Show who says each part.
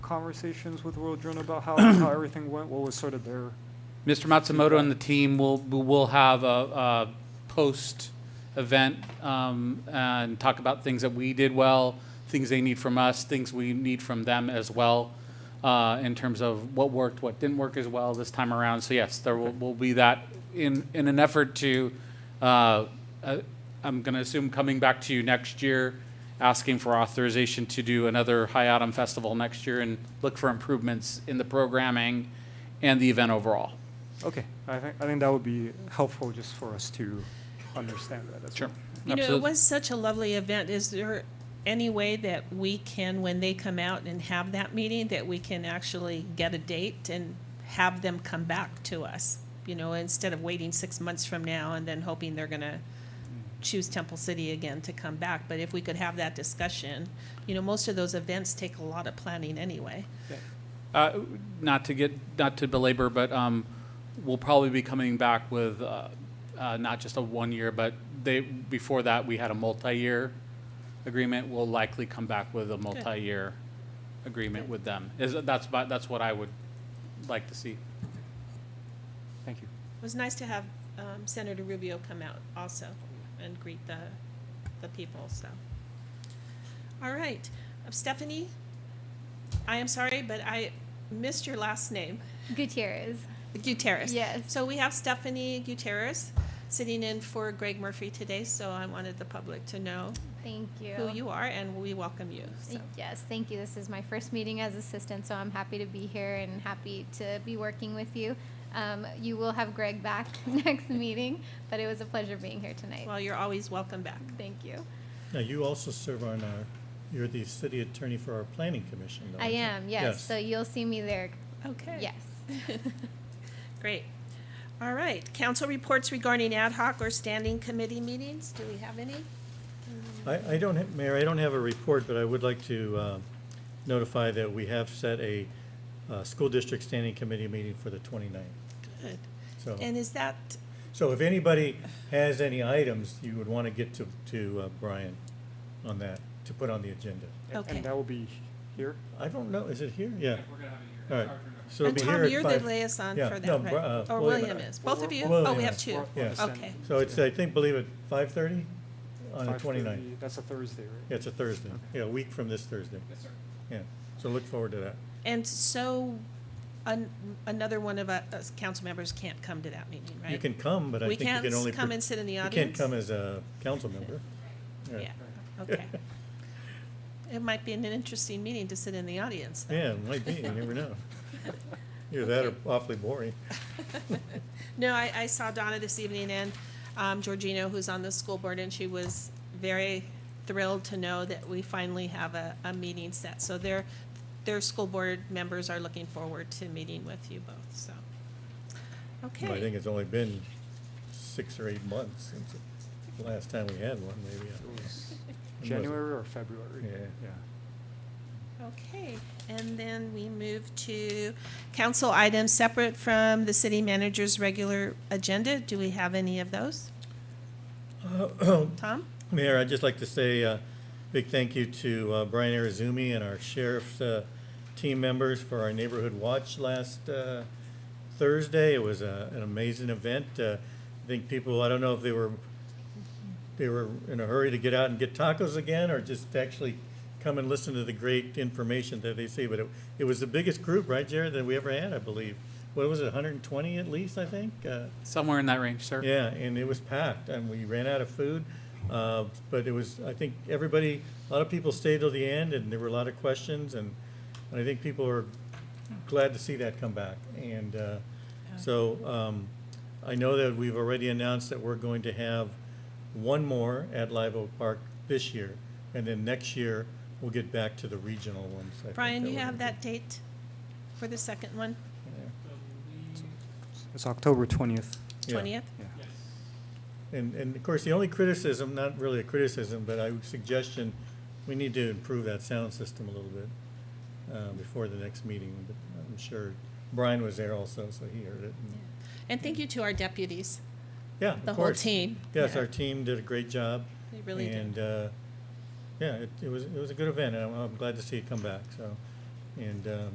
Speaker 1: conversations with World Drone about how, how everything went? What was sort of their,
Speaker 2: Mr. Matsumoto and the team will, will have a, a post-event um, and talk about things that we did well, things they need from us, things we need from them as well, uh, in terms of what worked, what didn't work as well this time around. So yes, there will, will be that in, in an effort to, uh, uh, I'm going to assume coming back to you next year, asking for authorization to do another High Autumn Festival next year and look for improvements in the programming and the event overall.
Speaker 1: okay, I think, I think that would be helpful just for us to understand that as well.
Speaker 3: You know, it was such a lovely event. Is there any way that we can, when they come out and have that meeting, that we can actually get a date and have them come back to us? You know, instead of waiting six months from now and then hoping they're gonna choose Temple City again to come back. But if we could have that discussion, you know, most of those events take a lot of planning anyway.
Speaker 2: Uh, Not to get, not to belabor, but um, we'll probably be coming back with uh, uh, not just a one year, but they, before that, we had a multi-year agreement. We'll likely come back with a multi-year agreement with them. Is, that's, about- that's what I would like to see.
Speaker 1: Thank you.
Speaker 3: It was nice to have um, Senator Rubio come out also and greet the, the people, so. All right, Uh, Stephanie, I am sorry, but I missed your last name,
Speaker 4: Gutierrez.
Speaker 3: Gutierrez.
Speaker 4: Yes.
Speaker 3: So we have Stephanie Gutierrez sitting in for Greg Murphy today, so I wanted the public to know
Speaker 4: Thank you.
Speaker 3: who you are and we welcome you, so.
Speaker 4: Yes, thank you. This is my first meeting as assistant, so I'm happy to be here and happy to be working with you. Um, you will have Greg back next meeting, but it was a pleasure being here tonight.
Speaker 3: Well, you're always welcome back.
Speaker 4: thank you.
Speaker 5: Now, you also serve on our, you're the city attorney for our planning commission, though.
Speaker 4: I
Speaker 5: aren't you?
Speaker 4: am, yes, So you'll see me there.
Speaker 3: Okay.
Speaker 4: Yes.
Speaker 3: Great. All right, council reports regarding ad hoc or standing committee meetings, do we have any?
Speaker 5: I, I don't, ha- Mayor, I don't have a report, but I would like to uh, notify that we have set a uh, school district standing committee meeting for the 29th.
Speaker 3: Good.
Speaker 5: So,
Speaker 3: And is that,
Speaker 5: so if anybody has any items, you would want to get to, to uh, Brian on that, to put on the agenda.
Speaker 1: And-
Speaker 3: Okay.
Speaker 1: And that will be here?
Speaker 5: I don't know, is it here? Yeah. All right. So it'll
Speaker 3: and
Speaker 5: be here
Speaker 3: Tom,
Speaker 5: at
Speaker 3: you're the
Speaker 5: five-
Speaker 3: liaison
Speaker 5: yeah,
Speaker 3: for
Speaker 5: no,
Speaker 3: that,
Speaker 5: Bri-
Speaker 3: right?
Speaker 5: uh,
Speaker 3: Or
Speaker 5: William
Speaker 3: William
Speaker 5: and I.
Speaker 3: is, both of you?
Speaker 5: William
Speaker 3: Oh, we
Speaker 5: and
Speaker 3: have
Speaker 5: I.
Speaker 3: two.
Speaker 5: Yes.
Speaker 3: Okay,
Speaker 5: So it's, I think, believe it, 5:30 on the 29th.
Speaker 1: 5:30 That's a Thursday, right?
Speaker 5: Yeah, it's a Thursday. Yeah, a week from this Thursday. Yes, sir. Yeah, so look forward to that.
Speaker 3: and so an- another one of us, us council members can't come to that meeting, right?
Speaker 5: You can come, but I
Speaker 3: We
Speaker 5: think you
Speaker 3: can't
Speaker 5: can only.
Speaker 3: s- come
Speaker 5: par-
Speaker 3: and sit in the
Speaker 5: You can't
Speaker 3: audience?
Speaker 5: come as a council member.
Speaker 3: Yeah, okay. It might be an interesting meeting to sit in the audience, though.
Speaker 5: Yeah, it might be, you never know. Either that or awfully boring.
Speaker 3: No, I, I saw Donna this evening and um, Georgino, who's on the school board, and she was very thrilled to know that we finally have a, a meeting set. So their, their school board members are looking forward to meeting with you both, so.
Speaker 5: I think
Speaker 3: Okay,
Speaker 5: it's only been six or eight months since the last time we had one, maybe.
Speaker 1: It
Speaker 5: I don't
Speaker 1: was
Speaker 5: know. When was it?
Speaker 1: January or February?
Speaker 5: Yeah.
Speaker 3: okay. And then we move to council items separate from the city manager's regular agenda. Do we have any of those? Tom?
Speaker 5: Mayor, I'd just like to say a big thank you to uh, Brian Arizumi and our sheriff's uh, team members for our neighborhood watch last uh, Thursday. It was a- an amazing event. Uh, I think people, I don't know if they were, they were in a hurry to get out and get tacos again or just actually come and listen to the great information that they see. But it, it was the biggest group, right, Jared, that we ever had, I believe. What was it, 120 at least, I think? Uh,
Speaker 2: Somewhere in that range, sir.
Speaker 5: yeah, and it was packed, and we ran out of food, uh, but it was, I think, everybody, a lot of people stayed till the end, and there were a lot of questions, and, and I think people are glad to see that come back, and, uh, so, um, I know that we've already announced that we're going to have one more at Live Oak Park this year, and then next year, we'll get back to the regional ones. I think
Speaker 3: Brian, you
Speaker 5: we're
Speaker 3: have
Speaker 5: gonna
Speaker 3: that date for the second one,
Speaker 1: It's October 20th.
Speaker 5: do. Yeah.
Speaker 3: 20th?
Speaker 5: And, and of course, the only criticism, not really a criticism, but I would suggestion, we need to improve that sound system a little bit uh, before the next meeting, but I'm sure Brian was there also, so he heard it. and-
Speaker 3: And thank you to our deputies.
Speaker 5: Yeah, of
Speaker 3: The whole
Speaker 5: course.
Speaker 3: team.
Speaker 5: Yes,
Speaker 3: Yeah.
Speaker 5: our team did a great job.
Speaker 3: They really did.
Speaker 5: And, uh, yeah, it, it was, it was a good event, and I'm, I'm glad to see it come back, so. and um,